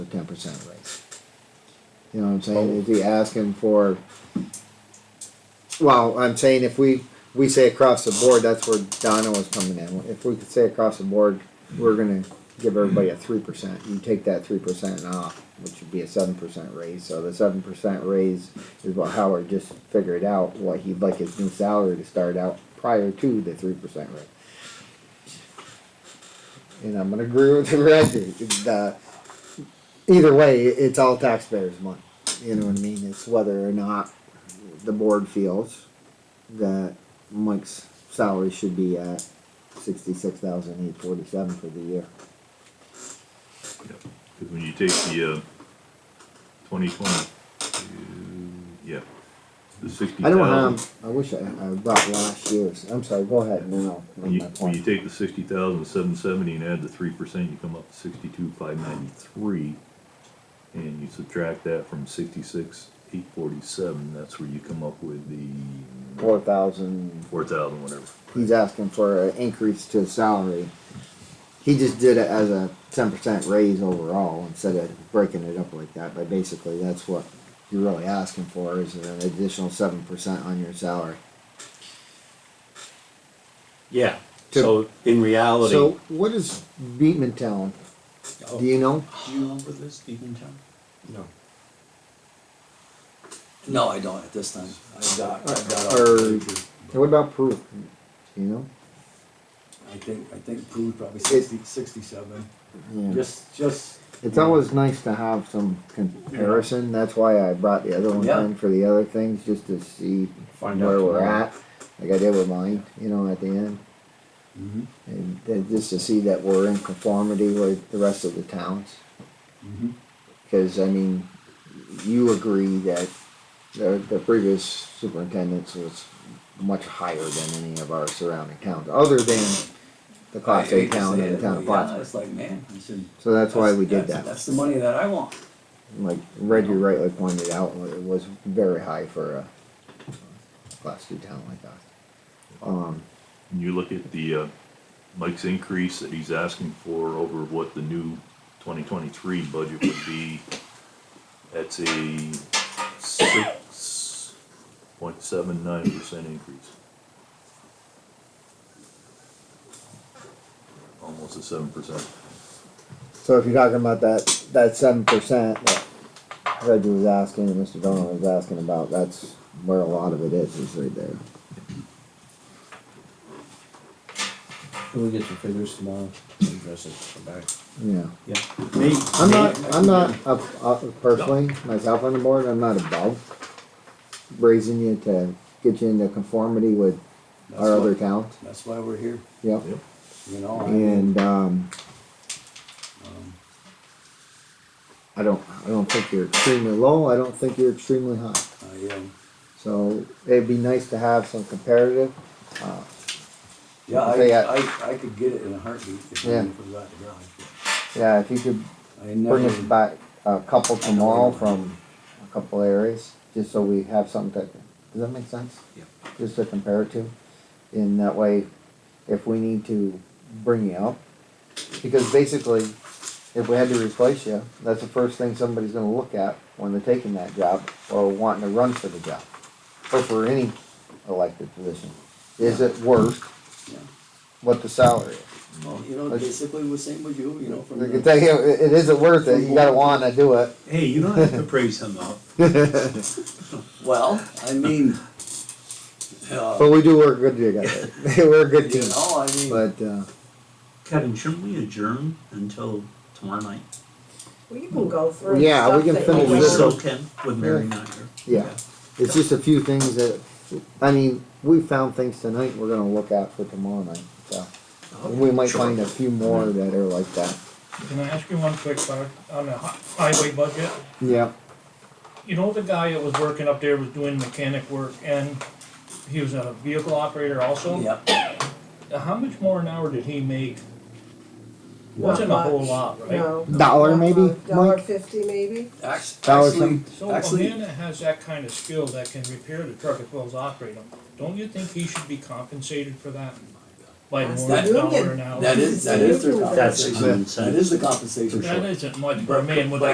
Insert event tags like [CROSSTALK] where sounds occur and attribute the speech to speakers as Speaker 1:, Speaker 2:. Speaker 1: a ten percent raise. You know what I'm saying? Is he asking for? Well, I'm saying if we we say across the board, that's where Donna was coming in. If we could say across the board, we're gonna give everybody a three percent. You take that three percent off, which would be a seven percent raise. So the seven percent raise is what Howard just figured out. What he'd like his new salary to start out prior to the three percent raise. And I'm gonna agree with the Reggie. The, either way, it's all taxpayers' money. You know what I mean? It's whether or not the board feels that Mike's salary should be at sixty-six thousand eight forty-seven for the year.
Speaker 2: Because when you take the, uh, twenty twenty, yeah, the sixty
Speaker 1: I don't
Speaker 2: thousand.
Speaker 1: have, I wish I, I brought last year's, I'm sorry, go ahead, no, no,
Speaker 2: When you,
Speaker 1: my
Speaker 2: when you
Speaker 1: point.
Speaker 2: take the sixty thousand seven seventy and add the three percent, you come up to sixty-two five ninety-three. And you subtract that from sixty-six eight forty-seven, that's where you come up with the
Speaker 1: Four thousand,
Speaker 2: four thousand, whatever.
Speaker 1: he's asking for an increase to his salary. He just did it as a ten percent raise overall instead of breaking it up like that, but basically that's what you're really asking for is an additional seven percent on your salary.
Speaker 3: Yeah,
Speaker 1: To-
Speaker 3: so in reality.
Speaker 1: So what is Beatman Town?
Speaker 3: Oh,
Speaker 1: Do you know?
Speaker 3: do you remember this, Stephen Town?
Speaker 4: No.
Speaker 3: No, I don't at this time. I've got, I've got, all-
Speaker 1: Or what about Proof? You know?
Speaker 4: I think, I think Prue's probably
Speaker 1: It-
Speaker 4: sixty, sixty-seven,
Speaker 1: Yeah.
Speaker 4: just, just,
Speaker 1: It's always nice to have some comparison. That's why I brought the other one
Speaker 3: Yeah.
Speaker 1: in for the other things, just to see
Speaker 4: Find out
Speaker 1: where we're
Speaker 4: tomorrow.
Speaker 1: at. Like I did with mine, you know, at the end.
Speaker 4: Mhm.
Speaker 1: And then just to see that we're in conformity with the rest of the towns.
Speaker 4: Mhm.
Speaker 1: Cause I mean, you agree that the, the previous superintendents was much higher than any of our surrounding towns, other than the
Speaker 3: I
Speaker 1: Class A
Speaker 3: hate to
Speaker 1: town
Speaker 3: say
Speaker 1: and
Speaker 3: it,
Speaker 1: the town
Speaker 3: but
Speaker 1: of
Speaker 3: yeah,
Speaker 1: Plattsburgh.
Speaker 3: it's like, man, I said.
Speaker 1: So that's why we did
Speaker 3: that's-
Speaker 1: that.
Speaker 3: That's the money that I want.
Speaker 1: Like Reggie rightly pointed out, it was very high for a Class two town like us. Um,
Speaker 2: And you look at the, uh, Mike's increase that he's asking for over what the new twenty twenty-three budget would be, that's a six point seven nine percent increase. Almost a seven percent.
Speaker 1: so if you're talking about that, that seven percent that Reggie was asking and Mr. Donovan was asking about, that's where a lot of it is, is right there.
Speaker 5: Can we get some figures tomorrow, address it, come back?
Speaker 1: Yeah.
Speaker 4: yeah. Me,
Speaker 1: I'm
Speaker 4: me,
Speaker 1: not, I'm not, uh, uh, personally, myself on the board, I'm not above raising you to get you into conformity with
Speaker 4: that's
Speaker 1: our
Speaker 4: why-
Speaker 1: other towns,
Speaker 4: That's why we're here,
Speaker 1: yep.
Speaker 2: Yep.
Speaker 4: you know, I mean,
Speaker 1: And, um,
Speaker 4: um,
Speaker 1: I don't, I don't think you're extremely low, I don't think you're extremely high.
Speaker 4: I, um,
Speaker 1: So it'd be nice to have some comparative,
Speaker 4: yeah,
Speaker 1: Say that.
Speaker 4: I, I, I could get it in a heartbeat if I
Speaker 1: Yeah.
Speaker 4: knew forgot to drive.
Speaker 1: yeah, if you could
Speaker 4: but I never.
Speaker 1: bring us back a couple tomorrow from a couple areas, just so we have something that, does that make sense?
Speaker 3: Yep.
Speaker 1: Just to compare it to, in that way, if we need to bring you up, because basically, if we had to replace you, that's the first thing somebody's gonna look at when they're taking that job, or wanting to run for the job, or for any elected position. Is it worth
Speaker 4: Yeah.
Speaker 1: what the salary is?
Speaker 4: Well, you know,
Speaker 1: Like-
Speaker 4: basically the same with you, you know, from
Speaker 1: They can
Speaker 4: the,
Speaker 1: tell you, it it isn't worth it, you gotta wanna do it.
Speaker 3: Hey, you don't have to praise him though.
Speaker 1: [LAUGHS]
Speaker 4: well, I mean, uh,
Speaker 1: But we do work good together, [LAUGHS]
Speaker 4: [LAUGHS]
Speaker 1: we're a good
Speaker 4: you
Speaker 1: team,
Speaker 4: know, I mean,
Speaker 1: but, uh,
Speaker 3: Kevin, shouldn't we adjourn until tomorrow night?
Speaker 6: We can go through
Speaker 1: Yeah, we
Speaker 6: stuff
Speaker 1: can
Speaker 6: that
Speaker 1: finish
Speaker 6: you
Speaker 1: We this
Speaker 6: want.
Speaker 1: still
Speaker 3: can, with
Speaker 1: Mary
Speaker 3: not here.
Speaker 1: yeah. It's just a few things that, I mean, we found things tonight we're gonna look at for tomorrow night, so. And we might find a few more that are like that.
Speaker 7: Can I ask you one quick part on the hi- highway budget?
Speaker 1: Yeah.
Speaker 7: You know the guy that was working up there was doing mechanic work and he was a vehicle operator also?
Speaker 3: Yeah,
Speaker 7: Now, How much more an hour did he make? Wasn't a whole lot, right?
Speaker 6: No.
Speaker 1: Dollar maybe,
Speaker 6: Uh, Dollar
Speaker 1: Mike?
Speaker 6: fifty maybe,
Speaker 3: Act-
Speaker 1: Dollar
Speaker 3: actually,
Speaker 7: So a
Speaker 3: actually,
Speaker 7: man that has that kind of skill that can repair the truck as well as operate them, don't you think he should be compensated for that? By
Speaker 6: That's
Speaker 3: the
Speaker 7: more than a dollar
Speaker 6: union.
Speaker 7: an hour?
Speaker 3: that is, that is their
Speaker 6: That's
Speaker 3: compensation.
Speaker 1: an
Speaker 3: That is the compensation.
Speaker 7: That isn't much for a man with
Speaker 3: But-
Speaker 7: a